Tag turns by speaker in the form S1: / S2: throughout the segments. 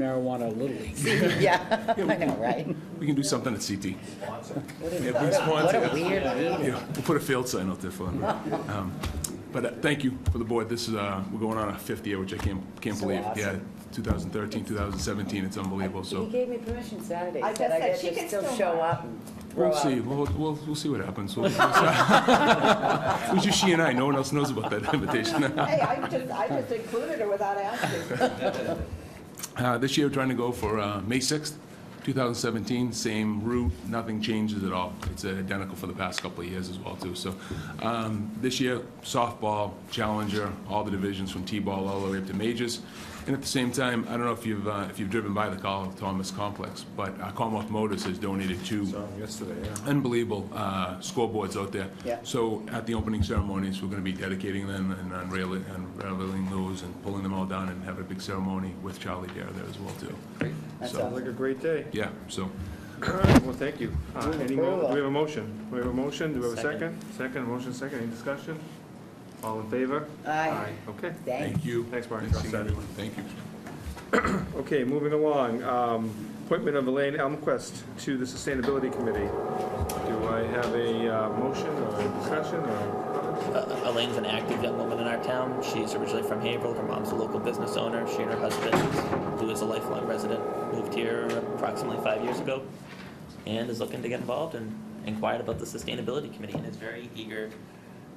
S1: marijuana Little League.
S2: Yeah, I know, right?
S3: We can do something at CT. Yeah, we
S2: What
S3: sponsor
S2: a
S3: it.
S2: weird meeting.
S3: Yeah, we'll put a field sign out there for them. Um, But uh, thank you for the board. This is, uh, we're going on our fifth year, which I can't, can't
S2: So
S3: believe. Yeah,
S2: awesome.
S3: 2013, 2017, it's unbelievable,
S2: He
S3: so
S2: gave me permission Saturday,
S4: I
S2: said
S4: just
S2: I
S4: said
S2: get
S4: she
S2: to
S4: can
S2: still
S4: still
S2: show
S4: watch.
S2: up and grow
S3: we'll see,
S2: up.
S3: we'll, we'll, we'll see what happens. We'll- It was just she and I, no one else knows about that invitation.
S4: Hey, I just, I just included her without asking.
S3: Uh, This year, we're trying to go for uh, May 6th, 2017, same route, nothing changes at all. It's identical for the past couple of years as well, too. So um, this year, softball, challenger, all the divisions from T-ball all the way up to majors. And at the same time, I don't know if you've, uh, if you've driven by the Carl Thomas Complex, but uh, Commonwealth Motors has donated two unbelievable uh, scoreboards out there.
S2: Yeah.
S3: So at the opening ceremonies, we're going to be dedicating them and unrailing, unraveling those and pulling them all down and have a big ceremony with Charlie Dare there as well, too. Great.
S2: That's
S3: So,
S2: awesome.
S5: Like a great day.
S3: yeah, so,
S5: All right, well, thank you. Uh,
S2: Move
S5: Any mo,
S2: approval.
S5: do we have a motion? Do we have a motion? Do we have a
S2: Second.
S5: second? Second, motion second, any discussion? All in favor?
S2: Aye.
S5: Okay,
S2: Thank
S3: thank you.
S5: Thanks, Brian.
S3: Nice seeing everyone. Thank you.
S5: okay, moving along, um, appointment of Elaine Elmquist to the Sustainability Committee. Do I have a uh, motion or a discussion or comments?
S6: Uh, Elaine's an active young woman in our town. She's originally from Haverhill. Her mom's a local business owner. She and her husband, who is a lifelong resident, moved here approximately five years ago and is looking to get involved and inquired about the Sustainability Committee and is very eager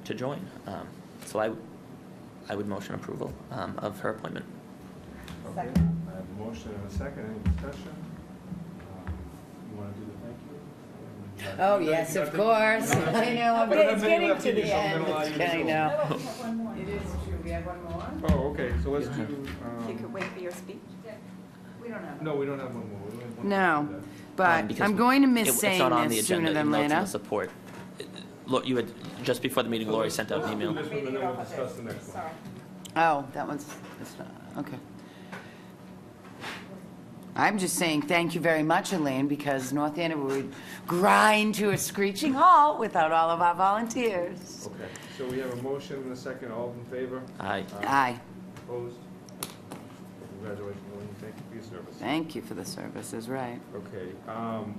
S6: to join. Um, So I, I would motion approval um, of her appointment.
S5: Okay,
S4: Second.
S5: I have a motion and a second, any discussion? Um, You want to do the thank you?
S2: Oh, yes, of course. I know, I'm
S5: You don't have
S2: it's
S5: many
S2: getting
S5: left
S2: to
S5: in you,
S2: the
S5: so I'm
S2: end.
S5: gonna allow you to
S2: I
S5: do it.
S2: know.
S4: we have one more. It is true, we have one more?
S5: Oh, okay, so let's do, um,
S4: You could wait for your speech? We don't have.
S5: no, we don't have one more. We only have one
S7: No.
S5: more.
S6: Um,
S7: But
S6: because
S7: I'm going to
S6: It-
S7: miss
S6: It's not on
S7: saying
S6: the
S7: this
S6: agenda,
S7: sooner than
S6: even though it's in the
S7: later.
S6: support. Look, you had, just before the meeting, Lori sent out an email.
S5: This one, and then we'll discuss the next one.
S4: Sorry.
S7: Oh, that one's, it's not, okay. I'm just saying thank you very much, Elaine, because North Andover would grind to a screeching halt without all of our volunteers.
S5: Okay, so we have a motion and a second, all in favor?
S6: Aye.
S7: Aye,
S5: Opposed? Congratulations, Elaine, thank you for your service.
S7: thank you for the services, right.
S5: Okay, um,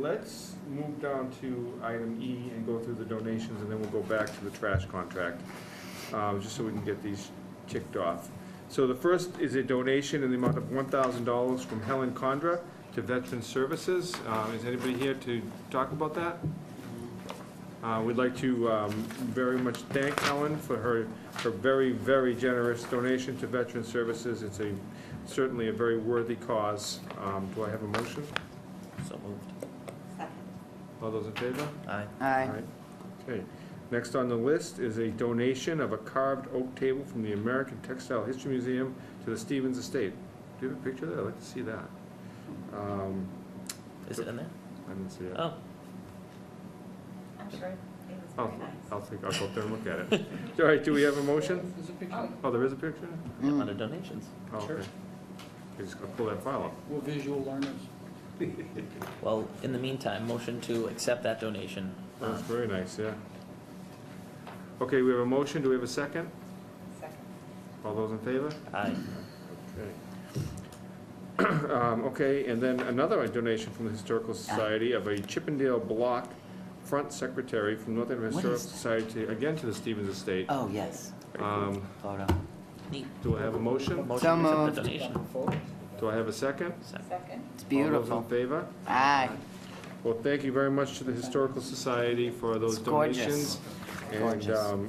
S5: let's move down to item E and go through the donations, and then we'll go back to the trash contract, um, just so we can get these ticked off. So the first is a donation in the amount of one thousand dollars from Helen Condra to Veteran Services. Um, is anybody here to talk about that? Uh, We'd like to um, very much thank Helen for her, her very, very generous donation to Veteran Services. It's a, certainly a very worthy cause. Um, Do I have a motion?
S6: So moved.
S4: Second.
S5: All those in favor?
S6: Aye.
S7: Aye,
S5: Alright. Okay. Next on the list is a donation of a carved oak table from the American Textile History Museum to the Stevens Estate. Do you have a picture there? I'd like to see that. Um,
S6: Is it in there?
S5: I didn't see it.
S6: Oh,
S4: I'm sure it was
S5: I'll,
S4: very nice.
S5: I'll take, I'll go up there and look at it. All right, do we have a motion? Oh, there is a picture?
S6: under donations.
S5: Oh, okay.
S1: Sure.
S5: I just gotta pull that file up.
S1: We're visual learners.
S6: Well, in the meantime, motion to accept that donation.
S5: That's
S6: Um,
S5: very nice, yeah. Okay, we have a motion, do we have a second?
S4: Second.
S5: All those in favor?
S6: Aye.
S5: Okay. Um, Okay, and then another donation from the Historical Society of a Chippendale Block Front Secretary from North Andover
S7: What
S5: Historical
S7: is that?
S5: Society, again to the Stevens Estate.
S7: oh, yes,
S5: Um,
S7: photo.
S6: Neat.
S5: Do I have a motion?
S6: Motion to accept
S7: moved.
S6: the donation.
S5: Do I have a second?
S6: Second.
S4: Second.
S7: It's
S5: All those
S7: beautiful.
S5: in favor?
S7: Aye,
S5: Well, thank you very much to the Historical Society for those
S7: It's gorgeous.
S5: donations. And,
S7: Gorgeous.
S5: um,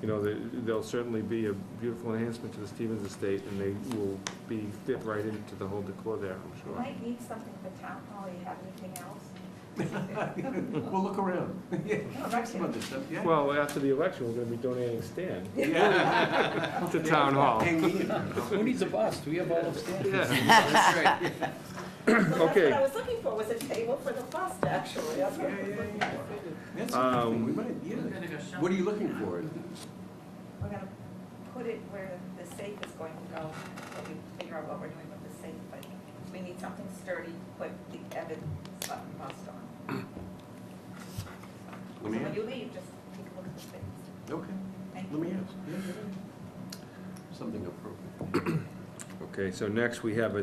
S5: you know, they- they'll certainly be a beautiful enhancement to the Stevens Estate, and they will be fit right into the whole decor there, I'm
S4: You
S5: sure.
S4: might need something for town hall, you have anything else?
S1: We'll look around.
S4: No, right here.
S5: Well, after the election, we're gonna be donating Stan to Town Hall.
S1: Hey, we need- Who needs a bus? Do we have all of Stan?
S5: Yeah.
S4: Well, That's
S5: Okay.
S4: what I was looking for, was a table for the bus, actually. That's what I was looking for.
S1: That's
S5: Um,
S1: something. We might, yeah. What are you looking for?
S4: We're gonna put it where the safe is going to go, so we figure out what we're doing with the safe, but we need something sturdy, put the Evan button bust on. So
S1: Let me
S4: when
S1: ask.
S4: you leave, just take a look at the things.
S1: Okay,
S4: Thank
S1: let me
S4: you.
S1: ask. Yeah, yeah. Something appropriate.
S5: Okay, so next we have a